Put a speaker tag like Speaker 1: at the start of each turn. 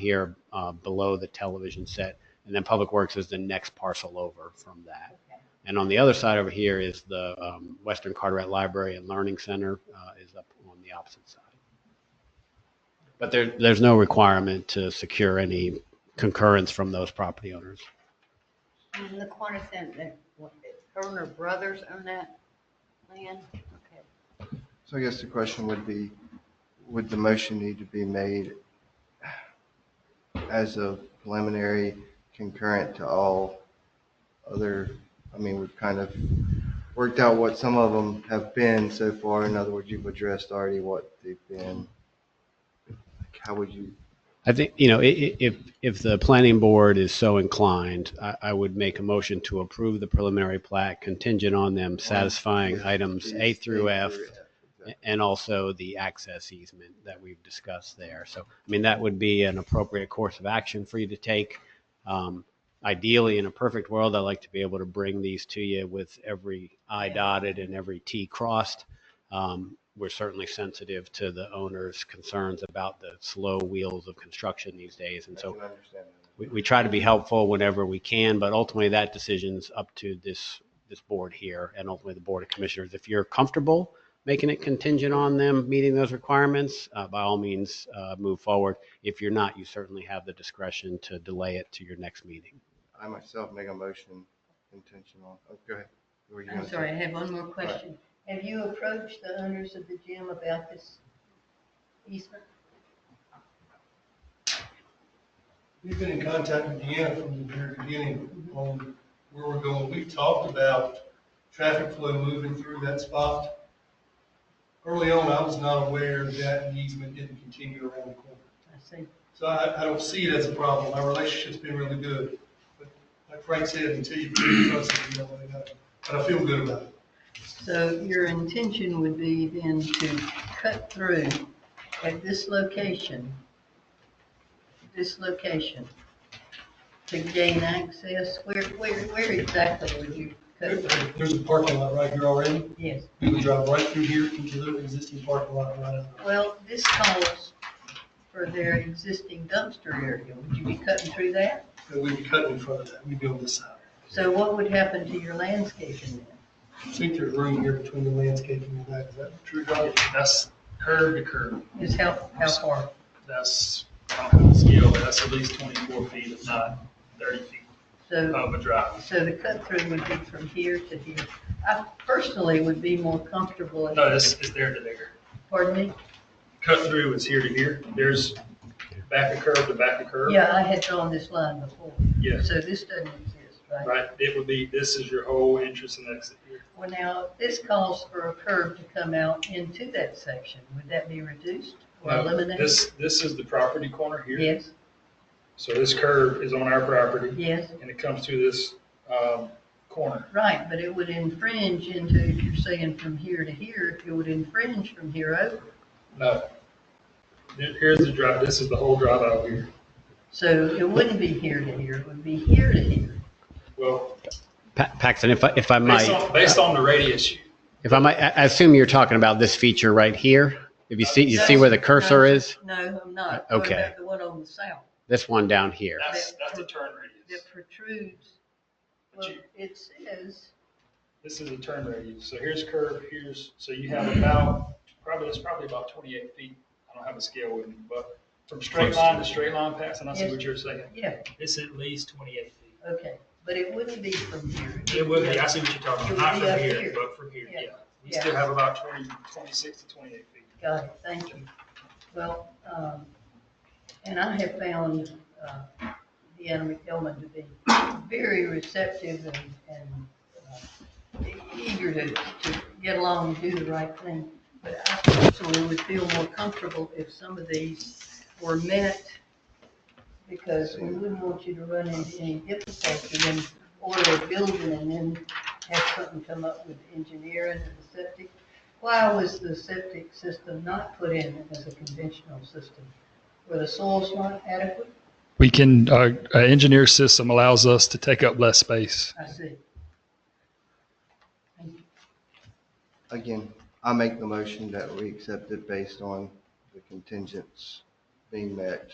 Speaker 1: here uh, below the television set. And then Public Works is the next parcel over from that. And on the other side over here is the um, Western Carteret Library and Learning Center uh, is up on the opposite side. But there, there's no requirement to secure any concurrence from those property owners.
Speaker 2: And the corner center, what, Turner Brothers own that land? Okay.
Speaker 3: So I guess the question would be, would the motion need to be made as a preliminary concurrent to all other, I mean, we've kind of worked out what some of them have been so far. In other words, you've addressed already what they've been. Like, How would you,
Speaker 1: I think, you know, i- i- if, if the planning board is so inclined, I, I would make a motion to approve the preliminary plat contingent on them satisfying items A through F and also the access easement that we've discussed there. So, I mean, that would be an appropriate course of action for you to take. Um, Ideally, in a perfect world, I'd like to be able to bring these to you with every I dotted and every T crossed. Um, We're certainly sensitive to the owner's concerns about the slow wheels of construction these days. And
Speaker 3: I
Speaker 1: so
Speaker 3: can understand that.
Speaker 1: we, we try to be helpful whenever we can, but ultimately that decision's up to this, this board here and ultimately the Board of Commissioners. If you're comfortable making it contingent on them meeting those requirements, uh, by all means, uh, move forward. If you're not, you certainly have the discretion to delay it to your next meeting.
Speaker 3: I myself make a motion intentional. Oh, go ahead. What were you
Speaker 2: I'm
Speaker 3: gonna say?
Speaker 2: sorry, I have one more question. Have you approached the owners of the gym about this easement?
Speaker 4: We've been in contact with Deanna from the very beginning on where we're going. We talked about traffic flow moving through that spot. Early on, I was not aware that the easement didn't continue around the corner.
Speaker 2: I see.
Speaker 4: So I, I don't see it as a problem. Our relationship's been really good. But like Frank said, until you prove it, you don't really know. But I feel good about it.
Speaker 2: So your intention would be then to cut through at this location, this location, to gain access? Where, where, where exactly would you cut through?
Speaker 4: There- There's a parking lot right here already.
Speaker 2: Yes.
Speaker 4: We can drive right through here into the existing parking lot right out.
Speaker 2: Well, this calls for their existing dumpster area. Would you be cutting through that?
Speaker 4: And we'd be cutting in front of that. We'd be on this side.
Speaker 2: So what would happen to your landscaping then?
Speaker 4: I think there's room here between the landscaping and that, is that true, Doug? That's curb to curb,
Speaker 2: Is how, how far?
Speaker 5: That's, I don't have the scale, but that's at least twenty-four feet, if not thirty feet
Speaker 2: So,
Speaker 5: of a drive.
Speaker 2: so the cut through would be from here to here. I personally would be more comfortable, if-
Speaker 5: No, this is there to there.
Speaker 2: pardon me?
Speaker 5: Cut through is here to here. There's back of curb to back of curb.
Speaker 2: Yeah, I had drawn this line before.
Speaker 5: Yes,
Speaker 2: So this doesn't exist, right?
Speaker 5: right. It would be, this is your whole entrance and exit here.
Speaker 2: Well, now, this calls for a curb to come out into that section. Would that be reduced or
Speaker 5: No,
Speaker 2: eliminated?
Speaker 5: This, this is the property corner here.
Speaker 2: Yes,
Speaker 5: So this curb is on our property
Speaker 2: yes.
Speaker 5: and it comes through this, um, corner.
Speaker 2: Right, but it would infringe into, if you're saying from here to here, it would infringe from here over.
Speaker 5: No. Here- Here's the drive, this is the whole drive out here.
Speaker 2: So it wouldn't be here to here, it would be here to here.
Speaker 5: Well,
Speaker 1: Pa- Paxton, if I, if I
Speaker 5: based
Speaker 1: might,
Speaker 5: on, based on the radius, you-
Speaker 1: if I might, I I assume you're talking about this feature right here. If you see, you see where the cursor is,
Speaker 2: No, I'm not.
Speaker 1: Uh,
Speaker 2: What
Speaker 1: okay.
Speaker 2: about the one on the south
Speaker 1: this one down here.
Speaker 5: that's, that's the turn radius.
Speaker 2: that protrudes? Well, it says,
Speaker 5: This is a turn radius, so here's curve, here's, so you have about, probably, it's probably about twenty-eight feet. I don't have a scale with me, but from straight line to straight line pass, and I see what you're saying.
Speaker 2: yeah,
Speaker 5: It's at least twenty-eight feet.
Speaker 2: okay, but it wouldn't be from here.
Speaker 5: It would be, I see what you're talking
Speaker 2: It
Speaker 5: about,
Speaker 2: would
Speaker 5: not
Speaker 2: be up
Speaker 5: from here,
Speaker 2: here.
Speaker 5: but from here,
Speaker 2: Yeah.
Speaker 5: yeah. We still have about 20 26 to twenty-eight feet.
Speaker 2: Got it, thank you. Well, um, and I have found, uh, Deanna McDelmott to be very receptive and, and uh, eager to, to get along and do the right thing. But I personally would feel more comfortable if some of these were minute, because we wouldn't want you to run into any difficulty and order a building and then have something come up with engineering and the septic why was the septic system not put in as a conventional system? Were the soils not adequate?
Speaker 6: We can, uh, our engineer system allows us to take up less space.
Speaker 2: I see.
Speaker 3: Again, I make the motion that we accept it based on the contingents being met